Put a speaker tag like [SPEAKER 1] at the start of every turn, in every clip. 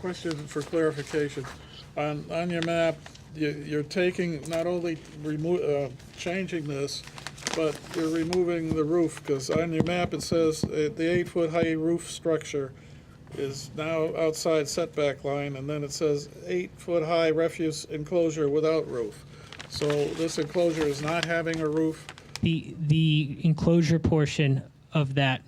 [SPEAKER 1] Question for clarification. On, on your map, you, you're taking, not only remo, uh, changing this, but you're removing the roof, because on your map, it says uh, the eight-foot high roof structure is now outside setback line, and then it says eight-foot high refuse enclosure without roof. So this enclosure is not having a roof.
[SPEAKER 2] The the enclosure portion of that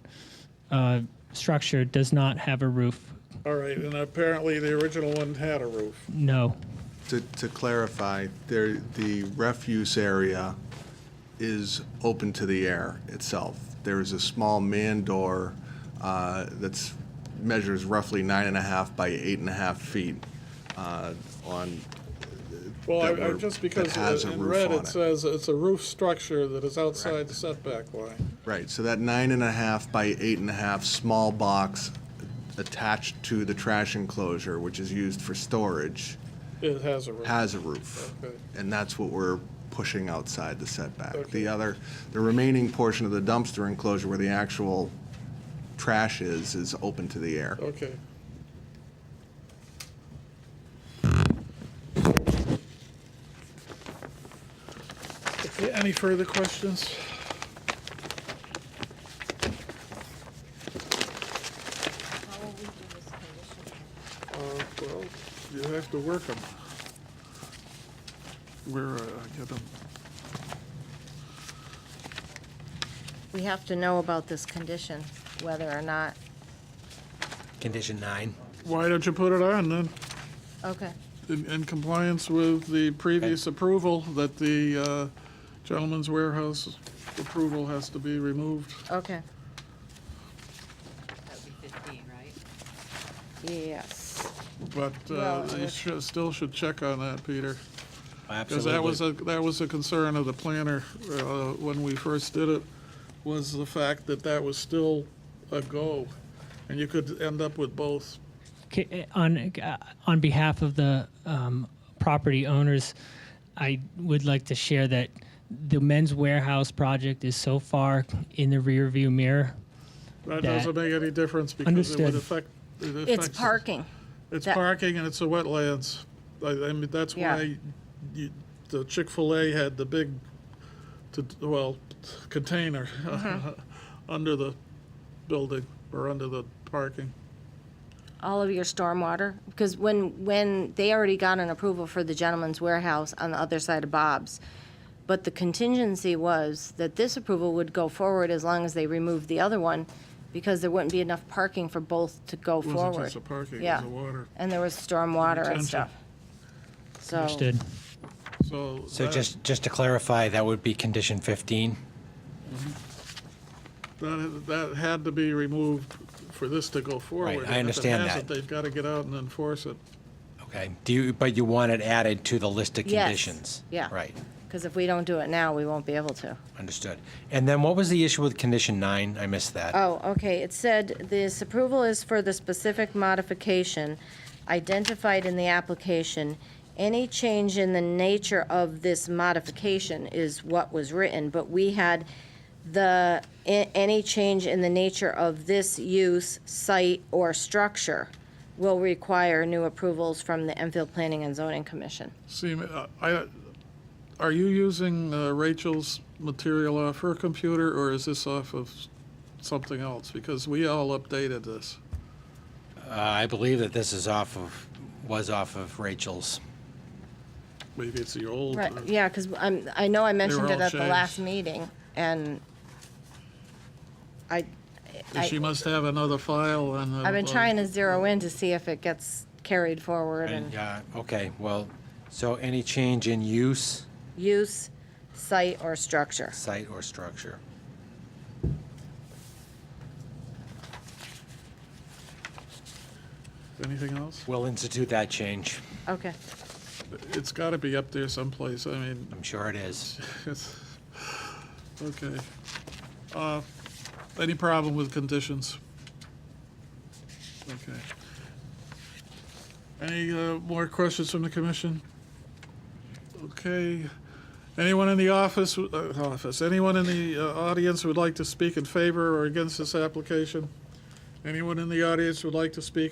[SPEAKER 2] uh, structure does not have a roof.
[SPEAKER 1] All right, and apparently the original one had a roof.
[SPEAKER 2] No.
[SPEAKER 3] To, to clarify, there, the refuse area is open to the air itself. There is a small man door uh, that's, measures roughly nine and a half by eight and a half feet uh, on,
[SPEAKER 1] Well,
[SPEAKER 3] that
[SPEAKER 1] I, I,
[SPEAKER 3] were-
[SPEAKER 1] just
[SPEAKER 3] that
[SPEAKER 1] because
[SPEAKER 3] has a
[SPEAKER 1] in
[SPEAKER 3] roof
[SPEAKER 1] red
[SPEAKER 3] on
[SPEAKER 1] it
[SPEAKER 3] it.
[SPEAKER 1] says it's a roof structure that is outside the setback line.
[SPEAKER 3] right, so that nine and a half by eight and a half small box attached to the trash enclosure, which is used for storage,
[SPEAKER 1] It has a roof.
[SPEAKER 3] has a roof.
[SPEAKER 1] Okay.
[SPEAKER 3] And that's what we're pushing outside the setback.
[SPEAKER 1] Okay.
[SPEAKER 3] The other, the remaining portion of the dumpster enclosure where the actual trash is, is open to the air.
[SPEAKER 1] Okay. Okay, Any further questions?
[SPEAKER 4] How will we do this condition?
[SPEAKER 1] Uh, well, you have to work them. Where, uh, I get them.
[SPEAKER 4] We have to know about this condition, whether or not,
[SPEAKER 5] Condition nine.
[SPEAKER 1] Why don't you put it on then?
[SPEAKER 4] okay,
[SPEAKER 1] In, in compliance with the previous approval, that the uh, gentleman's warehouse approval has to be removed.
[SPEAKER 4] okay,
[SPEAKER 6] That would be 15, right?
[SPEAKER 4] yes.
[SPEAKER 1] But uh,
[SPEAKER 4] Well,
[SPEAKER 1] you
[SPEAKER 4] if-
[SPEAKER 1] should, still should check on that, Peter. Because
[SPEAKER 5] Absolutely.
[SPEAKER 1] that was a, that was a concern of the planner uh, when we first did it, was the fact that that was still a go. And you could end up with both.
[SPEAKER 2] K- On uh, on behalf of the um, property owners, I would like to share that the men's warehouse project is so far in the rearview mirror.
[SPEAKER 1] That
[SPEAKER 2] That-
[SPEAKER 1] doesn't make any difference because it would
[SPEAKER 2] Understood.
[SPEAKER 1] affect. it
[SPEAKER 4] It's
[SPEAKER 1] affects-
[SPEAKER 4] parking,
[SPEAKER 1] It's
[SPEAKER 4] That-
[SPEAKER 1] parking and it's the wetlands. I, I mean, that's
[SPEAKER 4] Yeah.
[SPEAKER 1] why you, the Chick-fil-A had the big, to, well, container
[SPEAKER 4] Mm-hmm.
[SPEAKER 1] under the building or under the parking.
[SPEAKER 4] all of your stormwater, because when, when, they already got an approval for the gentleman's warehouse on the other side of Bob's. But the contingency was that this approval would go forward as long as they removed the other one, because there wouldn't be enough parking for both to go
[SPEAKER 1] It
[SPEAKER 4] forward.
[SPEAKER 1] wasn't just the parking, it was
[SPEAKER 4] Yeah.
[SPEAKER 1] the water.
[SPEAKER 4] And there was stormwater and
[SPEAKER 1] Retention.
[SPEAKER 4] stuff. So.
[SPEAKER 2] Understood.
[SPEAKER 1] So.
[SPEAKER 5] So
[SPEAKER 1] that-
[SPEAKER 5] just, just to clarify, that would be condition 15?
[SPEAKER 1] That, that had to be removed for this to go forward.
[SPEAKER 5] Right, I
[SPEAKER 1] and if it
[SPEAKER 5] understand
[SPEAKER 1] hasn't,
[SPEAKER 5] that.
[SPEAKER 1] They've got to get out and enforce it.
[SPEAKER 5] Okay, do you, but you want it added to the list of
[SPEAKER 4] Yes,
[SPEAKER 5] conditions?
[SPEAKER 4] yeah.
[SPEAKER 5] Right,
[SPEAKER 4] Because if we don't do it now, we won't be able to.
[SPEAKER 5] understood. And then what was the issue with condition nine? I missed that.
[SPEAKER 4] Oh, okay, it said, "This approval is for the specific modification identified in the application. Any change in the nature of this modification is what was written, but we had the, a- any change in the nature of this use, site, or structure will require new approvals from the Enfield Planning and Zoning Commission."
[SPEAKER 1] See, uh, I, are you using uh, Rachel's material off her computer, or is this off of something else? Because we all updated this.
[SPEAKER 5] Uh, I believe that this is off of, was off of Rachel's.
[SPEAKER 1] Maybe it's the old.
[SPEAKER 4] Right,
[SPEAKER 1] uh,
[SPEAKER 4] yeah, because I'm, I know I mentioned
[SPEAKER 1] all
[SPEAKER 4] it at the
[SPEAKER 1] changed.
[SPEAKER 4] last meeting, and I, I-
[SPEAKER 1] She must have another file and. uh,
[SPEAKER 4] I've been trying to zero in to see if it gets carried forward
[SPEAKER 5] And,
[SPEAKER 4] and
[SPEAKER 5] uh, okay, well, so any change in use,
[SPEAKER 4] use, site, or structure.
[SPEAKER 5] site, or structure?
[SPEAKER 1] Anything else?
[SPEAKER 5] We'll institute that change.
[SPEAKER 4] Okay,
[SPEAKER 1] It's got to be up there someplace. I mean,
[SPEAKER 5] I'm sure it is.
[SPEAKER 1] it's, okay. Uh, Any problem with conditions? Okay. Any uh, more questions from the commission? Okay. Anyone in the office, uh, office, anyone in the uh, audience would like to speak in favor or against this application? Anyone in the audience would like to speak